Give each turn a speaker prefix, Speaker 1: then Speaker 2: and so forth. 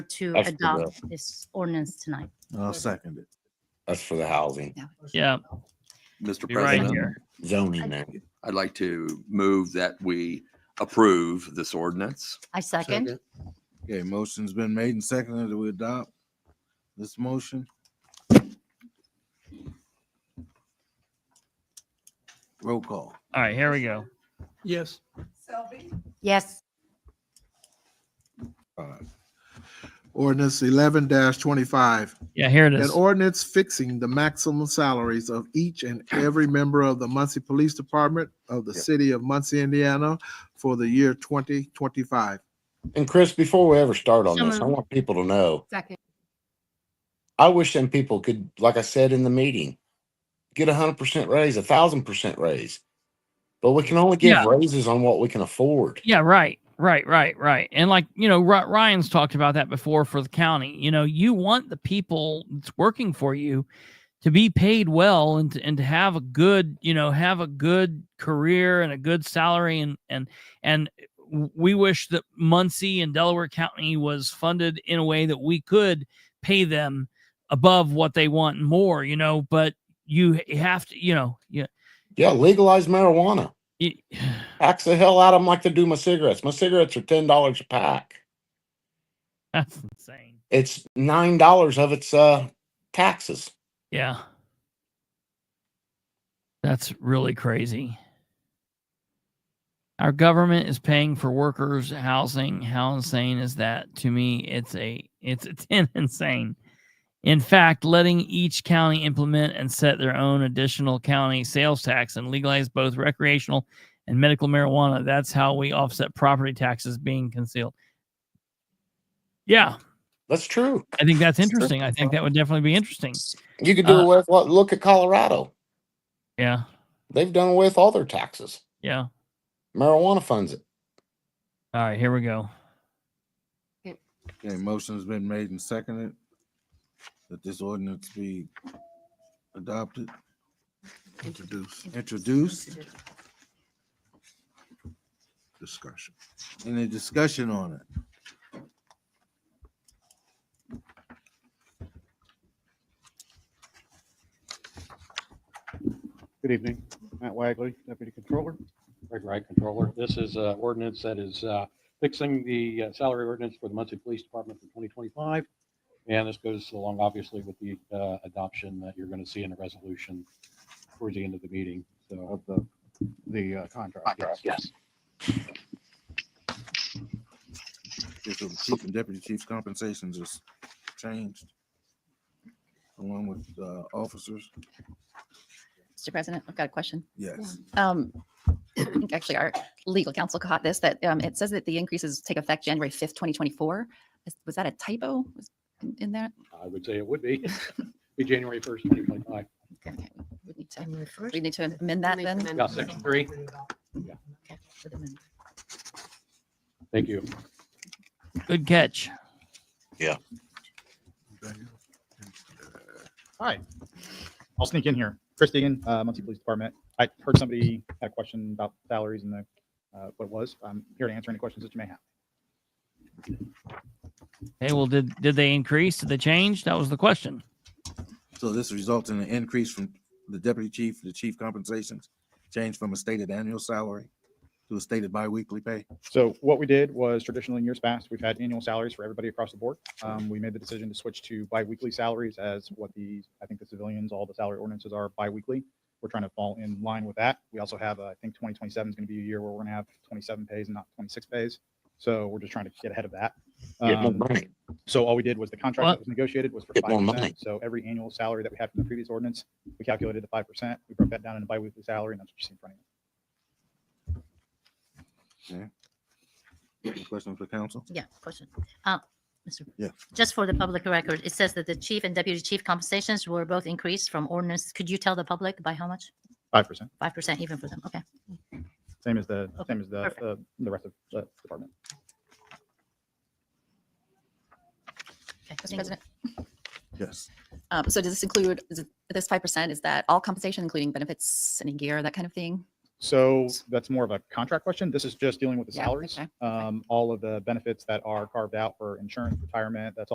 Speaker 1: to
Speaker 2: That's the
Speaker 1: adopt this ordinance tonight.
Speaker 3: I'll second it.
Speaker 2: That's for the housing
Speaker 4: Yeah,
Speaker 5: Mr.
Speaker 4: you're right
Speaker 5: President,
Speaker 4: here.
Speaker 2: zoning. now.
Speaker 5: I'd like to move that we approve this ordinance.
Speaker 1: I second.
Speaker 3: Okay, motion's been made and seconded that we adopt this motion. Roll call.
Speaker 4: All right, here we go.
Speaker 6: Yes.
Speaker 7: Selby,
Speaker 1: Yes,
Speaker 8: Five. Ordinance eleven twenty-five,
Speaker 4: Yeah, here it
Speaker 8: an
Speaker 4: is.
Speaker 8: ordinance fixing the maximum salaries of each and every member of the Muncie Police Department of the city of Muncie, Indiana for the year twenty twenty-five.
Speaker 2: And Chris, before we ever start on
Speaker 1: So
Speaker 2: this, I
Speaker 1: moved.
Speaker 2: want people to know,
Speaker 1: second.
Speaker 2: I wish them people could, like I said in the meeting, get a hundred percent raise, a thousand percent raise. But we can only
Speaker 4: Yeah.
Speaker 2: give raises on what we can afford.
Speaker 4: Yeah, right, right, right, right. And like you know, Ry- Ryan's talked about that before for the county. You know, you want the people that's working for you to be paid well and to, and to have a good, you know, have a good career and a good salary and and and we wish that Muncie and Delaware County was funded in a way that we could pay them above what they want and more, you know, but you have to, you know, yeah,
Speaker 2: Yeah, legalize marijuana.
Speaker 4: you,
Speaker 2: Tax the hell out of them like they do my cigarettes. My cigarettes are ten dollars a pack.
Speaker 4: that's insane.
Speaker 2: It's nine dollars of its uh taxes.
Speaker 4: Yeah. That's really crazy. Our government is paying for workers' housing. How insane is that? To me, it's a it's it's insane. In fact, letting each county implement and set their own additional county sales tax and legalize both recreational and medical marijuana. That's how we offset property taxes being concealed. Yeah,
Speaker 2: That's true.
Speaker 4: I think that's interesting. I think that would definitely be interesting.
Speaker 2: You could do
Speaker 4: Uh,
Speaker 2: away with what look at Colorado.
Speaker 4: Yeah,
Speaker 2: They've done away with all their taxes.
Speaker 4: yeah.
Speaker 2: Marijuana funds it.
Speaker 4: All right, here we go.
Speaker 3: Okay, motion's been made and seconded that this ordinance be adopted,
Speaker 8: Introduce
Speaker 3: introduced.
Speaker 8: discussion.
Speaker 3: Any discussion on it?
Speaker 9: Good evening. Matt Wagley, Deputy Controller. Greg Wright, Controller. This is an ordinance that is uh, fixing the uh, salary ordinance for the Muncie Police Department for 2025. And this goes along, obviously, with the uh, adoption that you're going to see in the resolution towards the end of the meeting. So of the, the uh, contract. Yes.
Speaker 3: If the chief and deputy chief compensations is changed along with, uh, officers?
Speaker 10: Mr. President, I've got a question.
Speaker 3: Yes.
Speaker 10: Um, I think actually our legal counsel caught this, that um, it says that the increases take effect January 5th, 2024. Is- Was that a typo Was in- in there?
Speaker 9: I would say it would be, be January 1st, 2025.
Speaker 10: Okay, okay, We need to- we need to amend that then.
Speaker 9: Yeah, section three. Thank you.
Speaker 4: Good catch.
Speaker 11: Hi. I'll sneak in here. Chris Deegan, uh, Muncie Police Department. I heard somebody had a question about salaries and the, uh, what it was. I'm here to answer any questions that you may have.
Speaker 4: Hey, well, did did they increase? Did they change? That was the question.
Speaker 3: So this results in an increase from the deputy chief, the chief compensations, changed from a stated annual salary to a stated biweekly pay.
Speaker 11: So what we did was traditionally in years past, we've had annual salaries for everybody across the board. Um, we made the decision to switch to biweekly salaries as what the, I think the civilians, all the salary ordinances are biweekly. We're trying to fall in line with that. We also have, uh, I think twenty twenty-seven is going to be a year where we're going to have twenty-seven pays and not twenty-six pays. So we're just trying to get ahead of that.
Speaker 2: Get more
Speaker 11: Um,
Speaker 2: money.
Speaker 11: So all we did was the contract
Speaker 4: What?
Speaker 11: that was negotiated was for
Speaker 2: Get
Speaker 11: five
Speaker 2: more money.
Speaker 11: percent. So every annual salary that we had from the previous ordinance, we calculated the five percent. We broke that down into biweekly salary and that's what you see in front of you.
Speaker 3: Any Questions for council?
Speaker 1: Yeah, question. Uh, Mr.
Speaker 3: Yeah.
Speaker 1: Just for the public record, it says that the chief and deputy chief compensations were both increased from ordinance. Could you tell the public by how much?
Speaker 11: Five percent,
Speaker 1: Five percent even for them. Okay.
Speaker 11: same as the,
Speaker 1: Okay,
Speaker 11: same as the,
Speaker 1: perfect.
Speaker 11: uh, the rest of the department.
Speaker 1: okay, thank
Speaker 10: Mr.
Speaker 1: you.
Speaker 10: President,
Speaker 3: Yes.
Speaker 10: um, so does this include, is it- this 5%, is that all compensation, including benefits, any gear, that kind of thing?
Speaker 11: So that's more of a contract question. This is just dealing with the
Speaker 10: Yeah,
Speaker 11: salaries.
Speaker 10: okay,
Speaker 11: Um, all of the benefits that are carved out for insurance, retirement, that's